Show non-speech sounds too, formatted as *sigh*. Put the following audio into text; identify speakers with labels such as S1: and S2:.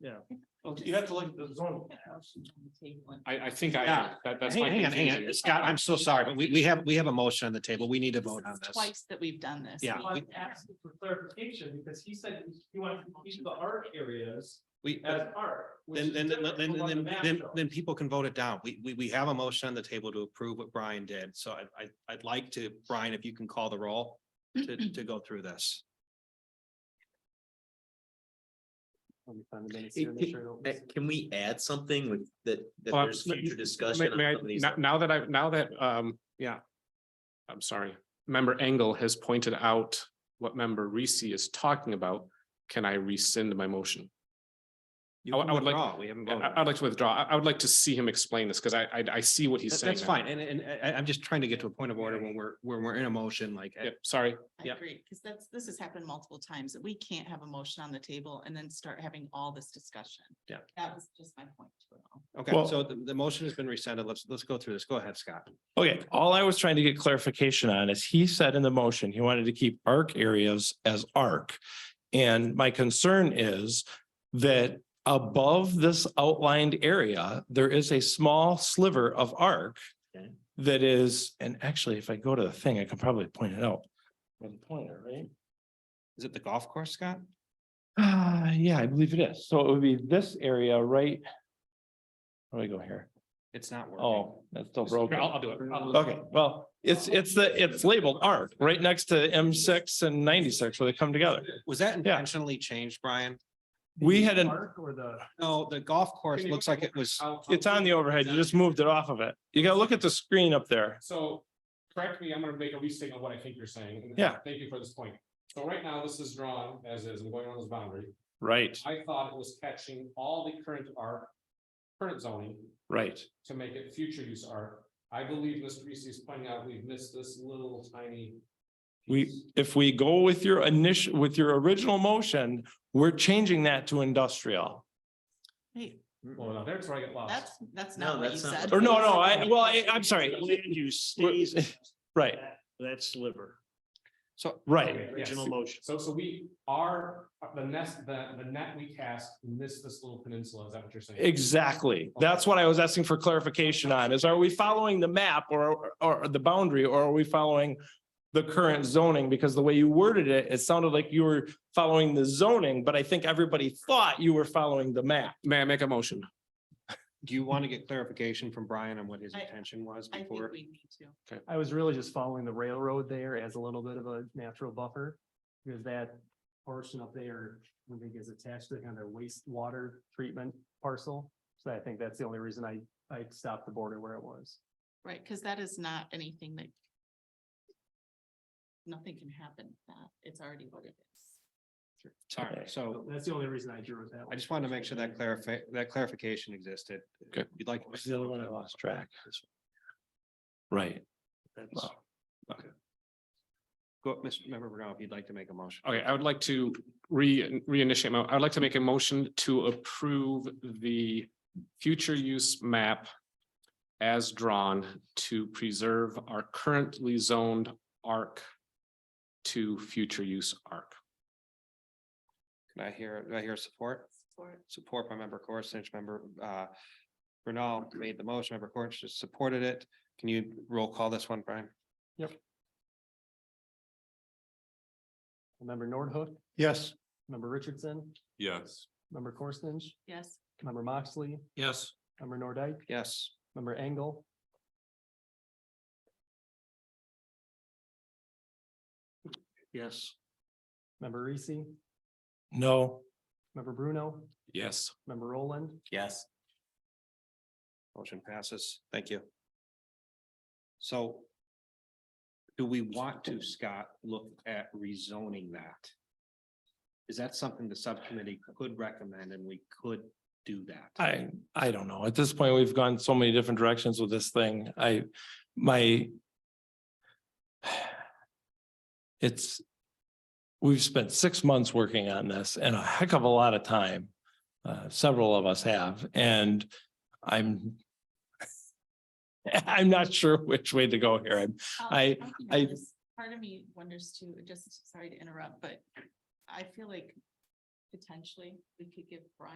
S1: yeah. You have to look at the zone.
S2: I, I think I,
S3: Yeah.
S2: have. that, that's my
S3: Hang hang on, hang on,
S2: confusion.
S3: Scott, I'm so sorry, but we, we have, we have a motion on the table. We need to vote on this.
S4: Twice that we've done this.
S3: Yeah.
S1: I'm asking for clarification because he said he wanted each of the art areas
S3: We,
S1: as
S3: then,
S1: art. which is
S3: then, then,
S1: different
S3: then,
S1: from what the
S3: then,
S1: map
S3: then,
S1: shows.
S3: then people can vote it down. We, we, we have a motion on the table to approve what Brian did. So I, I, I'd like to, Brian, if you can call the roll to, to go through this.
S5: Hey, Can eh, can we add something with that, that
S2: Well,
S5: there's
S2: let-
S5: future
S2: May-
S5: discussion? on
S2: may I-
S5: some of these-
S2: now- Now that I, now that, um, yeah. I'm sorry, member Engel has pointed out what member Reese is talking about. Can I rescind my motion?
S3: You
S2: I would-
S3: can
S2: I would like-
S3: withdraw. We haven't
S2: I,
S3: voted.
S2: I'd like to withdraw. I, I would like to see him explain this because I, I, I see what he's
S3: That-
S2: saying.
S3: That's
S2: now.
S3: fine. And, and and I, I'm just trying to get to a point of order when we're, when we're in a motion like.
S2: Yep, sorry.
S4: I
S3: Yeah.
S4: agree, because that's, this has happened multiple times, that we can't have a motion on the table and then start having all this discussion.
S3: Yeah.
S4: That was just my point to it all.
S3: Okay,
S6: Well-
S3: so the, the motion has been rescinded. Let's, let's go through this. Go ahead, Scott.
S6: Okay, all I was trying to get clarification on is he said in the motion, he wanted to keep arc areas as arc. And my concern is that above this outlined area, there is a small sliver of arc.
S5: Okay.
S6: That is, and actually, if I go to the thing, I can probably point it out. With a pointer, right?
S3: Is it the golf course, Scott?
S6: Ah, yeah, I believe it is. So it would be this area right. Where do I go here?
S3: It's not working.
S6: Oh, that's still broken.
S2: Here, I'll, I'll do it. I'll-
S6: Okay, well, it's, it's the, it's labeled ARC, right next to M six and ninety-six where they come together.
S3: Was that intentionally changed, Brian?
S6: We had an,
S1: Park Or the.
S3: No, the golf course
S2: Can you
S3: looks like it was,
S2: I'll-
S6: it's on the overhead. You just moved it off of it. You gotta look at the screen up there.
S2: So, correct me, I'm gonna make a restatement of what I think you're saying.
S6: Yeah.
S2: Thank you for this point. So right now, this is drawn as is, I'm going on this boundary.
S6: Right,
S2: I thought it was catching all the current art, current zoning
S6: right.
S2: to make it future use art. I believe Mr. Reese is pointing out we've missed this little tiny.
S6: We,
S2: piece.
S6: if we go with your initial, with your original motion, we're changing that to industrial.
S4: Wait,
S2: Well, now there's where I get
S4: that's,
S2: lost.
S4: that's
S5: No,
S4: not what you
S5: that's not
S4: said.
S5: what-
S6: Or no, no, I, well, I, I'm sorry.
S7: Land use stays in
S6: *laughs* Right,
S7: that sliver,
S3: so,
S6: right.
S2: Yes.
S7: original motion.
S2: So, so we are, the nest, the, the net we cast missed this little peninsula, is that what you're saying?
S6: Exactly. That's what I was asking for clarification on is are we following the map or, or the boundary or are we following the current zoning? Because the way you worded it, it sounded like you were following the zoning, but I think everybody thought you were following the map.
S2: May I make a motion?
S3: do you want to get clarification from Brian on what his
S4: I-
S3: intention was
S4: I think
S3: before?
S4: we need to.
S7: I was really just following the railroad there as a little bit of a natural buffer. Because that portion up there, I think is attached to kind of wastewater treatment parcel. So I think that's the only reason I, I stopped the border where it was.
S4: Right, because that is not anything that. Nothing can happen with that. It's already what it is.
S3: Sorry, so
S7: That's the only reason I drew it that way.
S3: I just wanted to make sure that clarify, that clarification existed.
S2: Okay.
S3: You'd like.
S6: What's the other one I lost track? Right.
S7: That's-
S3: Go, Mr. Member Bruno, if you'd like to make a motion.
S2: Okay, I would like to re, reinitiate, my- I would like to make a motion to approve the future use map as drawn to preserve our currently zoned arc to future use arc.
S3: Can I hear, do I hear support?
S4: For it.
S3: Support by member Coruscant, member, uh, Bruno made the motion, member Coruscant supported it. Can you roll call this one, Brian?
S7: Member Nordhook,
S3: Yes.
S7: member Richardson,
S2: Yes.
S7: member Corstens,
S4: Yes,
S7: member Moxley,
S3: Yes.
S7: member Nordike,
S3: Yes.
S7: member Engel.
S3: Yes.
S7: member Reese,
S6: No.
S7: member Bruno,
S2: Yes.
S7: member Roland,
S5: Yes.
S3: Motion passes. Thank you. So do we want to, Scott, look at rezoning that? Is that something the subcommittee could recommend and we could do that?
S6: I, I don't know. At this point, we've gone so many different directions with this thing. I, my. *sighs* It's. We've spent six months working on this and a heck of a lot of time. Uh, several of us have, and I'm. *laughs* I'm not sure which way to go here. I'm
S4: Um,
S6: I-
S4: can
S6: I-
S4: notice- Part of me wonders too, just sorry to interrupt, but I feel like potentially we could give Brian.